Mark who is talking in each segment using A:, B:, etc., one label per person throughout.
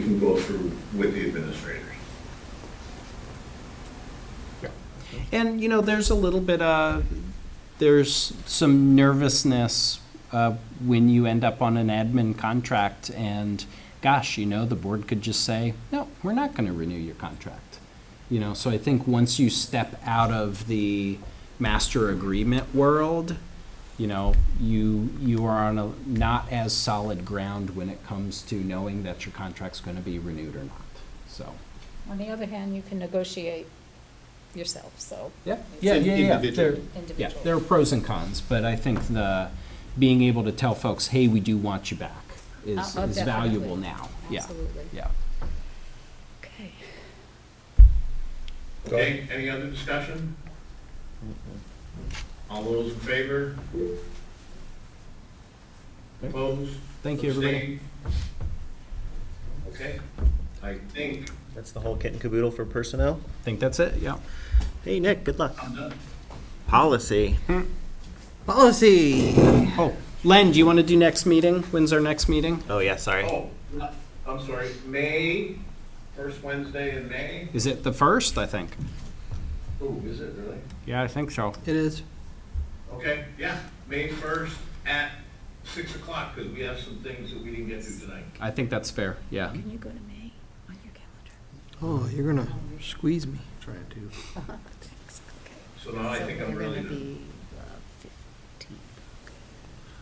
A: can go through with the administrators.
B: And, you know, there's a little bit of, there's some nervousness uh, when you end up on an admin contract and, gosh, you know, the board could just say, no, we're not going to renew your contract. You know, so I think once you step out of the master agreement world, you know, you, you are on a not as solid ground when it comes to knowing that your contract's going to be renewed or not, so.
C: On the other hand, you can negotiate yourself, so.
B: Yeah,
C: It's
B: yeah, yeah, yeah.
D: individual.
B: There- Yeah,
C: Individual.
B: there are pros and cons, but I think the, being able to tell folks, hey, we do want you back is,
C: Oh, oh,
B: is valuable
C: definitely.
B: now. Yeah,
C: Absolutely.
B: yeah.
C: Okay.
A: Okay, any other discussion? All those in favor? Opposed?
B: Thank you, everybody.
A: Abstained? Okay, I think
D: That's the whole kit and caboodle for personnel.
B: Think that's it, yeah.
D: Hey, Nick, good luck.
A: I'm done.
D: Policy. Policy.
B: Oh, Len, do you want to do next meeting? When's our next meeting?
D: Oh, yeah, sorry.
A: Oh, I'm sorry, May, first Wednesday in May?
B: Is it the first, I think?
A: Ooh, Oh, is it really?
B: Yeah, I think so.
E: It is.
A: Okay, yeah, May first at six o'clock, because we have some things that we didn't get to tonight.
B: I think that's fair, yeah.
C: Can you go to May on your calendar?
E: Oh, you're gonna squeeze me.
D: Trying to.
C: Thanks, okay.
A: So now I
C: So
A: think
C: we're
A: I'm
C: gonna
A: really, done.
C: be the 15th. Okay.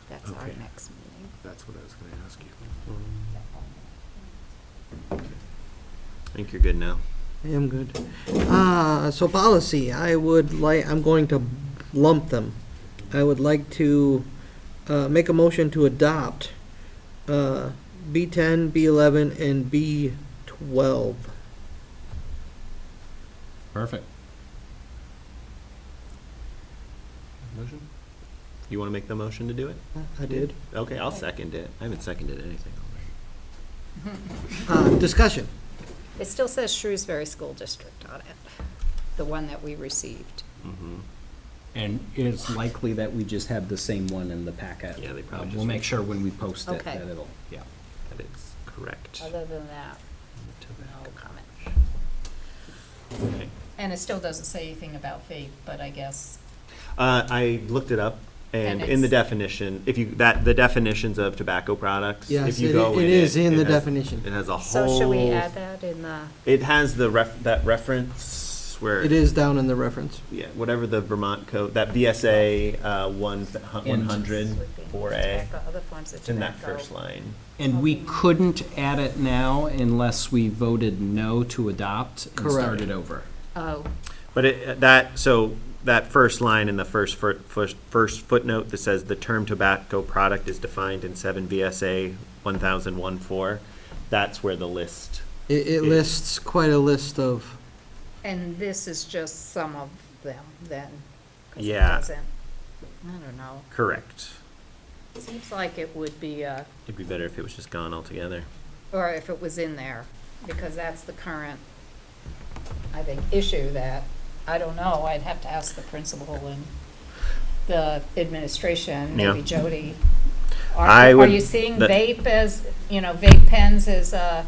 C: That's our
D: Okay.
C: next meeting.
D: That's what I was gonna ask you. I think you're good now.
E: I am good. Uh, so policy, I would like, I'm going to lump them. I would like to, uh, make a motion to adopt, uh, B ten, B eleven, and B twelve.
B: Perfect.
D: Motion? You wanna make the motion to do it?
E: I did.
D: Okay, I'll second it. I haven't seconded anything.
E: Uh, discussion.
C: It still says Shrewsbury School District on it, the one that we received.
D: Mm-hmm.
B: And it's likely that we just have the same one in the packet.
D: Yeah, they probably
B: Uh,
D: just-
B: We'll make sure when we post it
C: Okay.
B: that it'll, yeah.
D: That is correct.
C: Other than that, no comment.
D: Okay.
C: And it still doesn't say anything about fee, but I guess
D: Uh, I looked it up, and
C: And
D: in the
C: it's-
D: definition, if you, that, the definitions of tobacco products, if
E: Yes,
D: you
E: it
D: go
E: i-
D: in
E: it is in
D: it
E: the
D: has-
E: definition.
D: It has a whole.
C: So should we add that in the,
D: It has the ref, that reference where.
E: It is down in the reference.
D: Yeah, whatever the Vermont code, that VSA, uh, one, one hundred, four A,
C: tobacco, other forms of
D: it's in that
C: tobacco?
D: first line.
B: And we couldn't add it now unless we voted no to adopt and
E: Correct.
B: started over.
C: Oh,
D: But it, uh, that, so that first line in the first, fir- first, first footnote that says the term tobacco product is defined in seven VSA one thousand one four, that's where the list,
E: It, it
D: Yeah.
E: lists quite a list of,
C: and this is just some of them then? 'cause it
D: Yeah.
C: doesn't- I don't know.
D: correct.
C: Seems like it would be, uh,
D: It'd be better if it was just gone altogether.
C: or if it was in there, because that's the current, I think, issue that, I don't know, I'd have to ask the principal and the administration, maybe
D: Yeah.
C: Jody. Are,
D: I
C: are
D: would-
C: you seeing
D: that-
C: vape as, you know, vape pens as a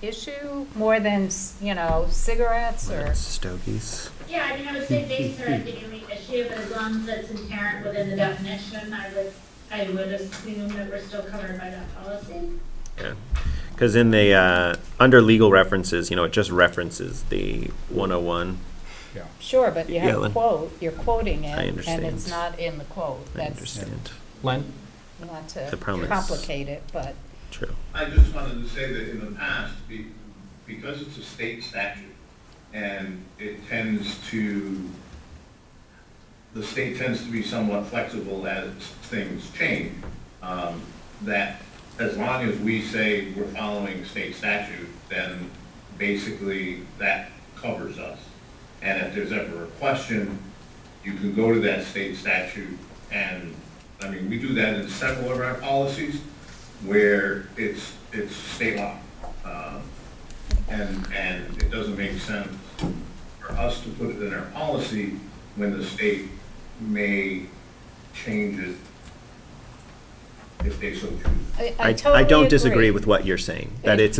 C: issue more than, s- you know, cigarettes or?
D: Stogies.
F: Yeah, I mean, I would say vapes are, I think, an issue, but as long as it's inherent within the definition, I would, I would assume that we're still covered by that policy.
D: Because in the, uh, under legal references, you know, it just references the one oh one.
C: Sure, but you have
D: Yellen.
C: quote, you're quoting
D: I
C: it, and
D: understand.
C: it's not in the quote.
D: I
C: That's
D: understand.
B: Len?
C: not to
D: The premise.
C: complicate it, but.
D: True.
A: I just wanted to say that in the past, be- because it's a state statute, and it tends to, the state tends to be somewhat flexible as things change, um, that as long as we say we're following state statute, then basically that covers us. And if there's ever a question, you can go to that state statute, and, I mean, we do that in several of our policies, where it's, it's state law. Um, And, and it doesn't make sense for us to put it in our policy when the state may change it
G: if they so choose.
D: I, I
C: I, I
D: totally
C: don't disagree
D: agree.
C: with what you're saying, that
D: Yeah.
C: it's